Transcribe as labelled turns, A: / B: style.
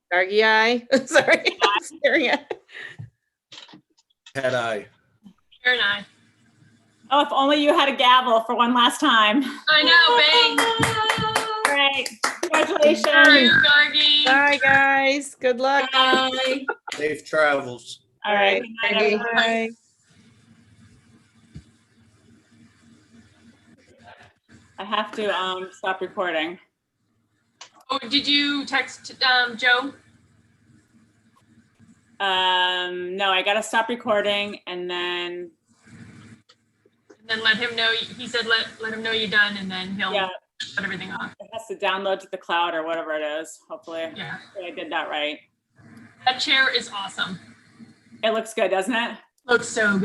A: Dargy eye, sorry. I'm staring at-
B: Had I.
C: Karen, I.
D: Oh, if only you had a gavel for one last time.
C: I know,
D: All right,
C: bang. Sorry,
D: congratulations.
C: Gargi.
A: Bye, guys. Good luck.
C: Bye.
B: Safe travels.
D: All right. good night, everyone.
A: Bye.
D: I have to um stop recording.
C: Oh, did you text, um, Joe?
D: Um, no, I gotta stop recording and then,
C: And then let him know, he said, let, let him know you're done and then he'll
D: yeah,
C: shut everything off.
D: it has to download to the cloud or whatever it is, hopefully.
C: Yeah.
D: Hopefully I did that right.
C: That chair is awesome.
D: It looks good, doesn't it?
C: Looks so good.